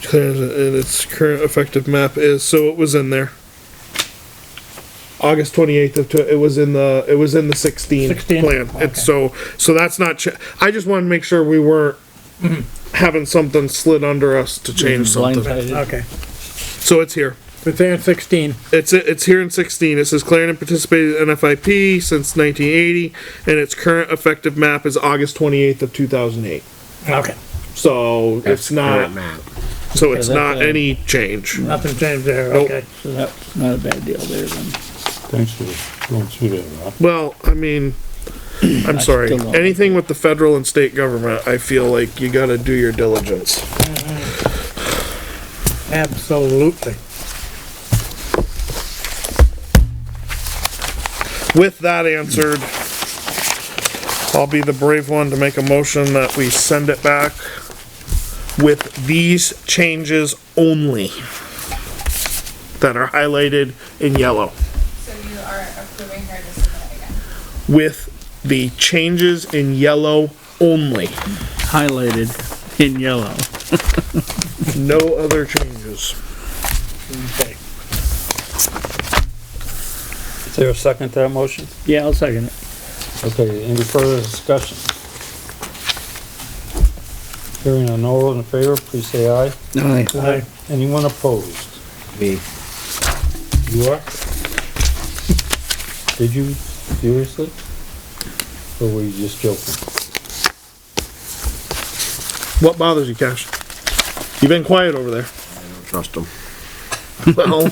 declared it in its current effective map is, so it was in there. August twenty-eighth of, tw- it was in the, it was in the sixteen 16? plan. It's so, so that's not, cha- I just wanted to make sure we weren't Mm-hmm. having something slid under us to change something. Blindsided. Okay, So it's here. but they're in sixteen. It's, it's here in sixteen. It says Clarendon participated in NFIP since nineteen eighty, and its current effective map is August twenty-eighth of two thousand eight. Okay. So it's not, map. so it's Okay, that's not a- any change. Nothing changed there, Nope. okay. So that's not a bad deal there then. Thanks for going through that, Rob. Well, I mean, I'm sorry. still don't- Anything with the federal and state government, I feel like you gotta do your diligence. Absolutely. With that answered, I'll be the brave one to make a motion that we send it back with these changes only that are highlighted in yellow, So you are approving her to submit again? with the changes in yellow only, Highlighted in yellow. no other changes. Okay. Is there a second to that motion? Yeah, I'll second it. Okay, any further discussion? Hearing none, all those in favor, please say aye. Aye. Aye. Anyone opposed? Me. You are? Did you seriously? Or were you just joking? What bothers you, Cash? You've been quiet over there. Trust him. Well,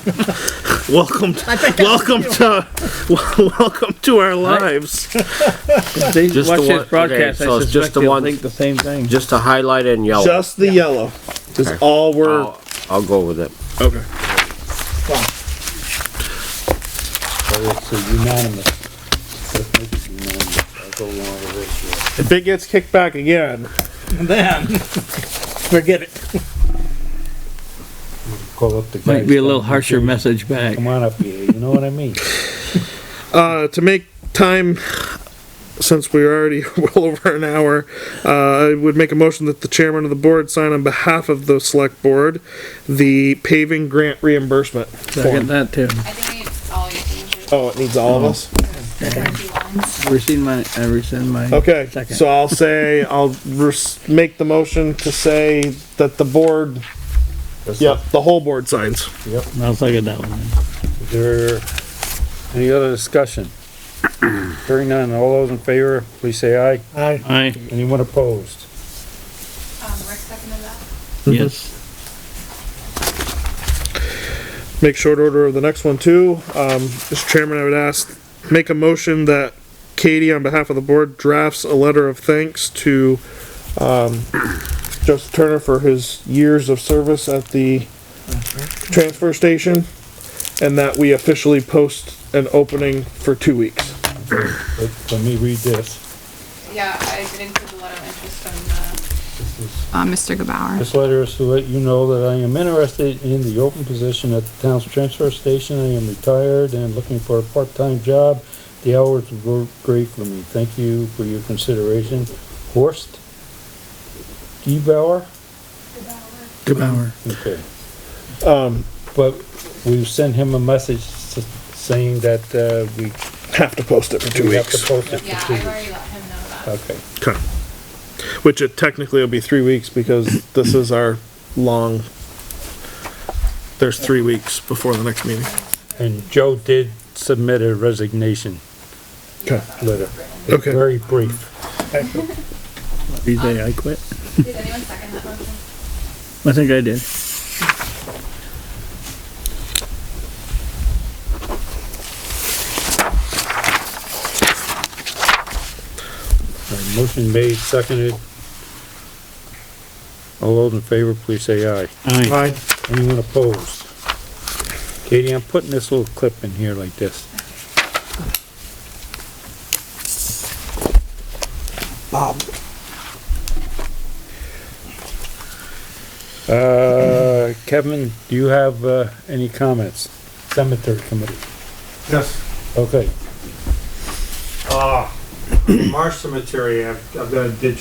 welcome, welcome to, wel- welcome to our lives. If they Just watch the one- this okay, broadcast, so I it's suspect just the they'll one- think the same thing. Just to highlight it in yellow. Just the yellow is Okay. all we're, I'll, I'll go with it. Oh, okay. So it's a unanimous. Let's make it unanimous. I'll go along with If it gets kicked back again, And then, forget it. this. Call up the guys. Might be a little harsher message back. Come on up here, you know what I mean? uh, to make time, since we're already well over an hour, uh, I would make a motion that the chairman of the board sign on behalf of the select board, the paving grant reimbursement. Second that too. I think it's all you changes. Oh, it needs all of us? Um, Rescind my, I rescind my. Oh. Okay, Second. so I'll say, I'll res- make the motion to say that the board, yep, the whole board signs. I'll second that one. Is there any other discussion? Hearing none, all those in favor, please say aye. Aye. Aye, Anyone opposed? Um, Rick seconded that? yes. make short order of the next one too. Um, Mr. Chairman, I would ask, make a motion that Katie, on behalf of the board, drafts a letter of thanks to, um, Joseph Turner for his years of service at the transfer station, and that we officially post an opening for two weeks. Let, let me read this. Yeah, I did include the letter of interest from, uh. Uh, Mr. Gabauer. This letter is to let you know that I am interested in the open position at the town's transfer station. I am retired and looking for a part-time job. The hours were great for me. Thank you for your consideration. Horst Gebauer? Good hour. Okay. Um, But we sent him a message s- saying that, uh, we have to post it for two we have to weeks, post it Yeah, for two I've weeks. already let him know that. Okay. Okay. which it technically will be three weeks because this is our long, there's three weeks before the next meeting. And Joe did submit a resignation Okay. letter. Okay. Very brief. You say I quit? Did anyone second that motion? I think I did. Uh, Motion made, seconded. All those in favor, please say aye. Aye. Aye. Anyone opposed? Katie, I'm putting this little clip in here like this. Um, Bob. Uh, Kevin, do you have, uh, any comments? Cemetery committee, Yes, okay. uh, Marsh Cemetery, I've, I've got a ditch